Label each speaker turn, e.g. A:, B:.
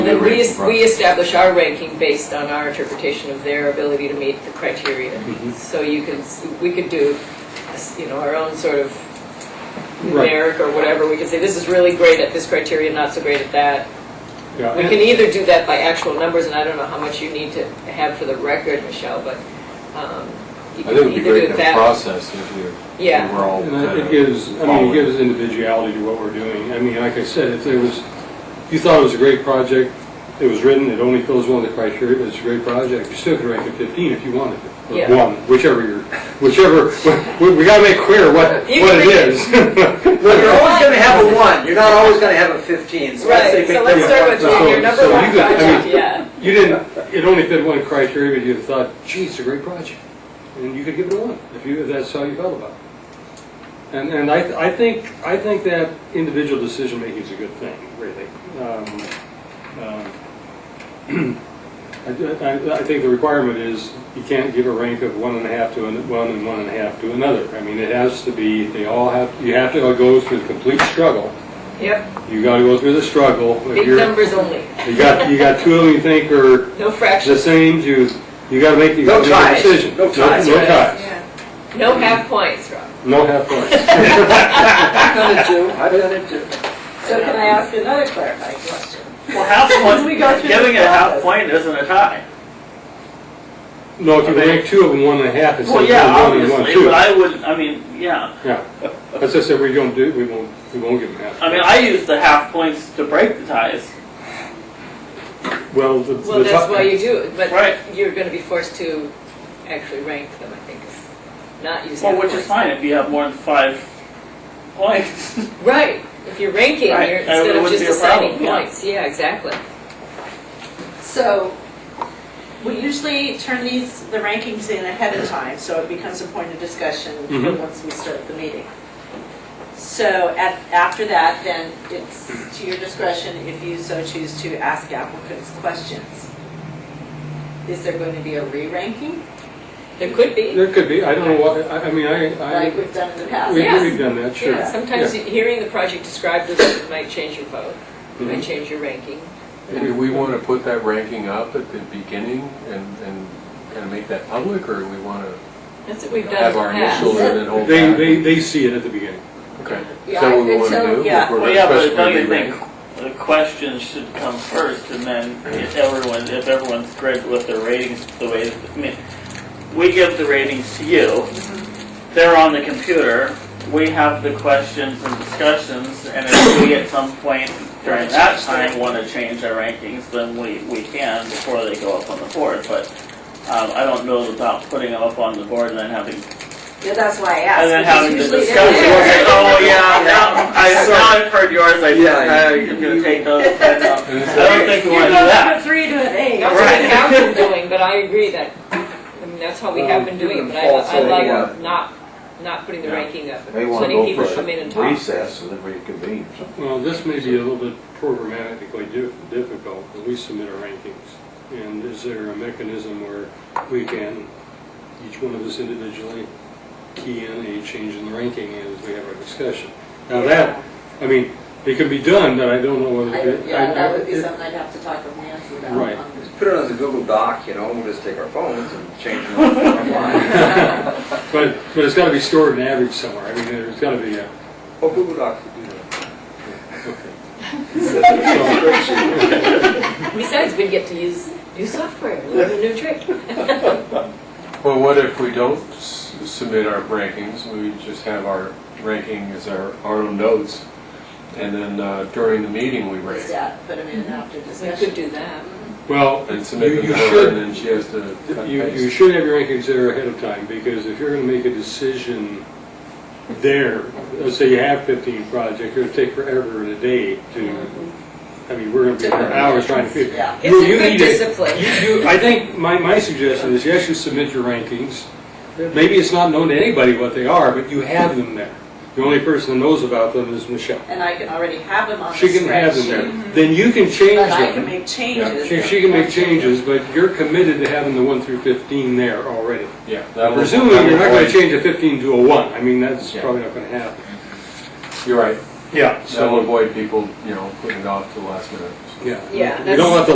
A: rank
B: we,
A: from-
B: we establish our ranking based on our interpretation of their ability to meet the criteria.
C: Mm-hmm.
B: So you can, s- we could do, you know, our own sort of
C: Right.
B: numeric or whatever. We could say, this is really great at this criteria, not so great at that.
C: Yeah,
B: We
C: and-
B: can either do that by actual numbers, and I don't know how much you need to have for the record, Michelle, but um, you
A: I
B: can
A: think it'd be
B: either
A: great
B: do
A: in
B: it
A: the
B: that. way.
A: process if you're,
B: Yeah.
A: if we're all
C: And I-
A: kind
C: it
A: of
C: gives, I mean,
A: following.
C: it gives individuality to what we're doing. I mean, like I said, if there was, if you thought it was a great project, it was written, it only fills one of the criteria, but it's a great project, you still could rank it 15 if you wanted to.
B: Yeah.
C: Or one, whichever you're, whichever, we we gotta make clear what, what
B: You can
C: it
B: make it-
C: is.
D: Well, you're always gonna have a one, you're not always gonna have a fifteen, so let's say
B: Right,
D: make
B: so
D: them
B: let's start with
D: one.
C: So-
B: your number
C: so you
B: one
C: could- I
B: project,
C: mean-
B: yeah.
C: You didn't, it only fit one criteria, but you thought, gee, it's a great project. And you could give it a one, if you, if that's how you felt about it. And, and I, I think, I think that individual decision-making is a good thing, really. Um, um, I, do- I- I think the requirement is, you can't give a rank of one and a half to an- one and one and a half to another. I mean, it has to be, they all have, you have to go through the complete struggle.
B: Yep,
C: You gotta go through the struggle. If
B: big
C: you're-
B: numbers only,
C: You got, you got two of them you think are
B: no
C: the
B: fractions,
C: same, you, you gotta make, you
D: No
C: gotta make
D: ties.
C: a decision.
D: No ties,
C: No
D: right.
C: ties,
B: no half points, Rob.
C: no half points.
D: I've done it too, I've done it too.
E: So can I ask another clarifying question?
F: Well, half
E: We go
F: point,
E: through
F: giving
E: the
F: a half
E: process.
F: point isn't a tie.
C: No, if you rank two of them, one and a half instead
F: Well,
C: of
F: yeah,
C: one and one,
F: obviously,
C: two.
F: but I would, I mean, yeah.
C: Yeah, that's just that we don't do, we won't, we won't give them half.
F: I mean, I use the half points to break the ties.
C: Well, the, the.
B: Well, that's
C: top-
B: why you do it, but
F: Right.
B: you're gonna be forced to actually rank them, I think, is not using.
F: Well,
B: half
F: which is
B: points.
F: fine if you have more than five points.
B: Right, if you're ranking,
F: Right,
B: you're,
F: and it
B: instead of
F: wouldn't
B: just
F: be a problem,
B: assigning
F: yeah.
B: points, yeah, exactly.
E: So we usually turn these, the rankings in ahead of time, so it becomes a point of discussion for
C: Mhm.
F: Mm-hmm.
E: once we start the meeting. So at, after that, then it's to your discretion if you so choose to ask applicants questions. Is there going to be a re-ranking
B: There could be,
C: There could be, I don't know what, I, I mean, I, I,
E: like we've done in the past?
C: we-
B: Yes.
C: we've done that, sure.
B: yeah, sometimes you- hearing the project described as it might change your vote, it might
C: Mhm.
B: change your ranking.
A: Do we want to put that ranking up at the beginning and, and kind of make that public, or we want to
B: That's what we've done in
A: have
B: the
A: our
B: past.
A: initial and then hold
C: They,
A: back?
C: they, they see it at the beginning.
A: Okay, is
E: Yeah,
A: that what we
E: it's
A: want to
E: so-
A: do?
E: yeah.
A: If we're
F: Well, yeah, but
A: especially
F: don't you
A: re-ranking?
F: think the questions should come first, and then if everyone, if everyone's great with their ratings the way, I mean, we give the ratings to you, they're on the computer, we have the questions and discussions, and if we at some point during that time want to change our rankings, then we, we can before they go up on the board, but um, I don't know about putting them up on the board and then having
E: Yeah, that's why I
F: and
E: asked.
F: then
E: because
F: having the
E: usually they're
F: discussion,
E: there.
F: we'll say, oh, yeah, now, I,
D: Sorry.
F: now I've heard yours, I,
D: Yeah,
F: I'm gonna take those. I don't-
A: And
F: I
A: it's
F: don't think we
E: You're
F: wanna do
E: going
F: that.
E: from three to an eight.
B: That's what
F: Right.
B: I've been doing, but I agree that, I mean, that's how we have been doing it, but I, I
D: Um,
B: like not, not putting the
A: Yeah.
B: ranking up.
G: May want
B: Letting
G: to
B: people
G: go
B: come in and
G: for a
B: talk.
G: recess and then reconvene or something.
C: Well, this may be a little bit programmatically dif- difficult, but we submit our rankings. And is there a mechanism where we can, each one of us individually, key in a change in the ranking as we have our discussion? Now that, I mean, it could be done, but I don't know whether.
E: I- Yeah,
C: I-
E: that would be
C: it-
E: something I'd have to talk with Nancy about.
C: Right.
D: Just put it on the Google Doc, you know, we'll just take our phones and change them online.
C: But, but it's gotta be stored and averaged somewhere. I mean, there's gotta be a,
D: Oh, Google Docs would do
C: so,
D: that.
B: Besides, we get to use new software, learn a new trick.
A: Well, what if we don't s- submit our rankings, we just have our ranking as our, our own notes, and then uh, during the meeting we rank?
E: Yeah, put them in after
B: Mm-hmm. We
E: discussion.
B: could do that.
C: well,
A: And submit
C: you
A: them to
C: you
A: her,
C: should
A: and then she has to cut
C: You,
A: and
C: you
A: paste.
C: should have your rankings there ahead of time, because if you're gonna make a decision there, let's say you have fifteen projects, it'll take forever and a day to, I mean, we're gonna be for hours trying to figure.
E: Yeah.
C: You-
B: It's a
C: you
B: good
C: need to-
B: discipline.
C: You, you, I think, my, my suggestion is you actually submit your rankings. Maybe it's not known to anybody what they are, but you have them there. The only person that knows about them is Michelle.
E: And I can already have them on the
C: She can have them
E: spreadsheet.
C: there. Then you can change them.
E: But I can make changes.
C: She, she can make changes, but you're committed to having the one through fifteen there already.
A: Yeah. that'll-
C: Presumably, you're not
A: that'll
C: gonna
A: avoid-
C: change a fifteen to a one, I mean, that's
A: Yeah.
C: probably not gonna happen.
A: You're right,
C: Yeah.
A: that'll
C: So,
A: avoid people, you know, putting it off to the last minute.
C: yeah.
B: Yeah,
C: You don't want the